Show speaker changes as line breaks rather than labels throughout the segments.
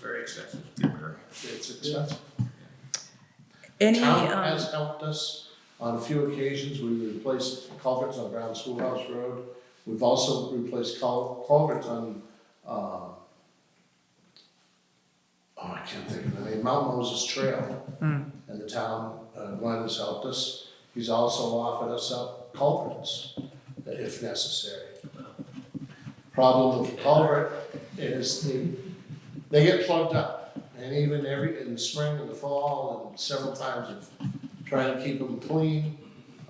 very expensive repair.
It's expensive.
Any,
Town
um,
has helped us on a few occasions, we replaced culverts on Brown Schoolhouse Road. We've also replaced cul- culverts on, uh, oh, I can't think of the name, Mount Moses Trail.
Hmm.
And the town, uh, Glenn has helped us, he's also offered us up culverts if necessary. Problem with culvert is the they get plugged up, and even every, in the spring and the fall, and several times of trying to keep them clean.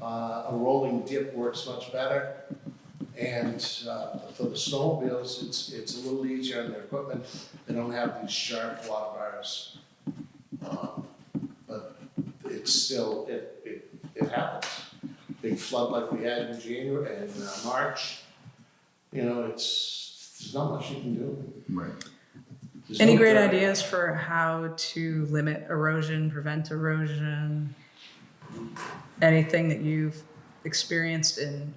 Uh, a rolling dip works much better, and, uh, for the snowmobiles, it's, it's a little easier on their equipment, they don't have these sharp water bars. Um, But it's still, it, it, it happens. Big flood like we had in January, and, uh, March, you know, it's, there's not much you can do.
Right.
There's
any
no
great
dirt.
ideas for how to limit erosion, prevent erosion? Anything that you've experienced in,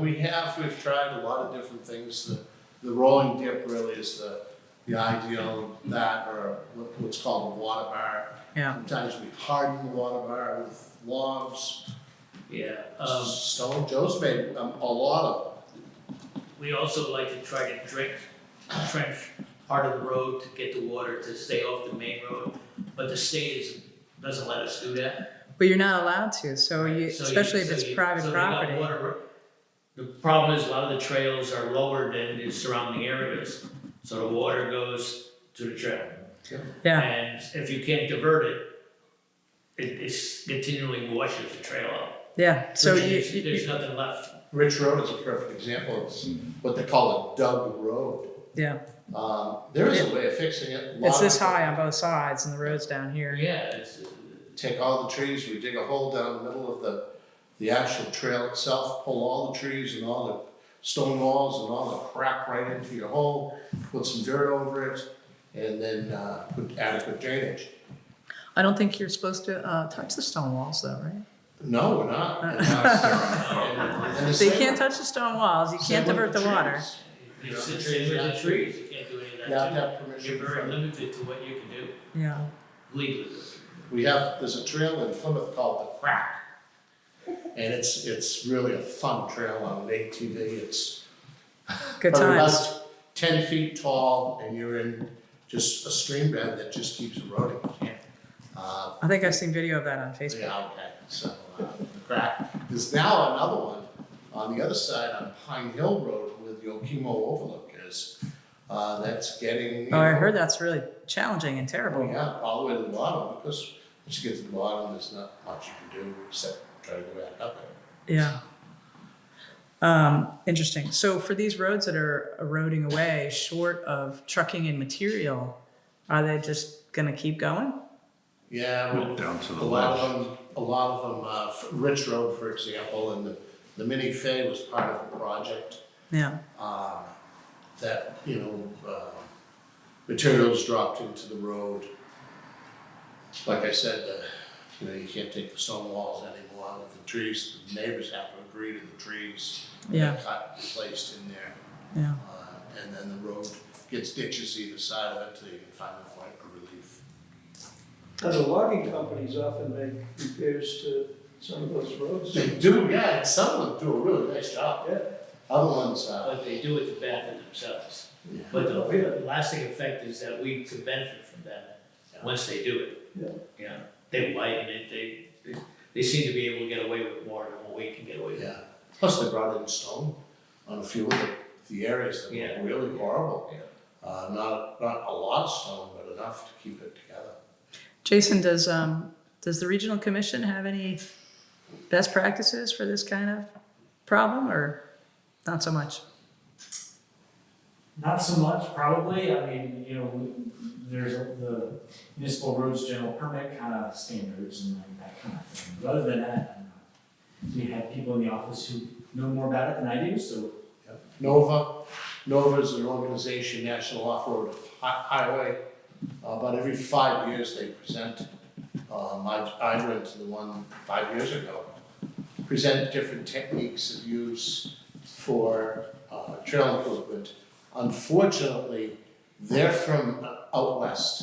We have, we've tried a lot of different things, the, the rolling dip really is the, the ideal, that or what- what's called a water bar.
yeah,
Sometimes we harden the water bar with logs,
Yeah, um,
stone, Joe's made um, a lot of, them.
we also like to try to drink, trench part of the road to get the water to stay off the main road, but the state is, doesn't let us do that.
but you're not allowed to, so you,
So
especially if
so
it's
you-
private
so they got
property.
water- The problem is a lot of the trails are lower than the surrounding areas, so the water goes to the trail.
Yeah.
And if you can't divert it, it, it's continually washes the trail out.
Yeah, so you,
There's-
you-
There's nothing left.
Rich Road is a perfect example, it's what they call a dug road.
yeah,
Um, there is a way of fixing it.
it's
Lot
this
of-
high on both sides and the road's down here.
Yeah, it's,
take all the trees, we dig a hole down the middle of the, the actual trail itself, pull all the trees and all the stone walls and all the crap right into your hole, put some dirt over it, and then, uh, put adequate drainage.
I don't think you're supposed to, uh, touch the stone walls though, right?
No, we're not. And that's- and the
So you
same-
can't touch the stone walls, you
same
can't
with
divert the water.
trees.
it's the trees, the trees, you can't do any of
You have to
that.
have
too. You're
permission
very
from,
limited to what you can do
Yeah,
legally.
we have, there's a trail in Plymouth called the Crack. And it's, it's really a fun trail on an ATV, it's
good
Probably about
times.
Ten feet tall and you're in just a stream bed that just keeps eroding. Uh,
I think I've seen video of that on Facebook.
yeah, okay, so, uh, crack. There's now another one on the other side on Pine Hill Road with the Okemo Overlook is, uh, that's getting. you
Oh, I
know,
heard that's really challenging and terrible.
Yeah, all the way to the bottom, because once you get to the bottom, there's not much you can do except try to go back up it.
Yeah. Um, interesting. So for these roads that are eroding away, short of trucking and material, are they just gonna keep going?
Yeah, well,
Down to
A
the
lot
left.
of them, a lot of them, uh, F- Rich Road, for example, and the, the mini Fay was part of a project,
Yeah,
uh, that, you know, uh, materials dropped into the road. Like I said, uh, you know, you can't take the stone walls anymore out of the trees, the neighbors have to agree to the trees. that
Yeah.
Cut, and placed in there,
yeah.
uh, and then the road gets ditches either side of it till you can find a point of relief.
Now, the logging companies often make repairs to some of those roads.
They do, yeah, and some of them do a really nice job.
Yeah.
Other ones, uh,
But they do it to benefit themselves.
Yeah.
But the lasting effect is that we can benefit from that uh, once they do it.
Yeah.
Yeah, they widen it, they, they- they seem to be able to get away with more than what we can get away with.
yeah, plus they brought in stone on a few of the, the areas that
Yeah.
were really horrible. Uh, not, not a lot of stone, but enough to keep it together.
Jason, does, um, does the regional commission have any best practices for this kind of problem or not so much?
Not so much, probably. I mean, you know, we- there's the municipal roads general permit kind of standards and like that kind of thing. But other than that, I'm not- we have people in the office who know more about it than I do, so
Nova, Nova is an organization, National Off-Road Hi- Highway. Uh, About every five years, they present, um, I, I went to the one five years ago, present different techniques of use for, uh, trail improvement. Unfortunately, they're from out west.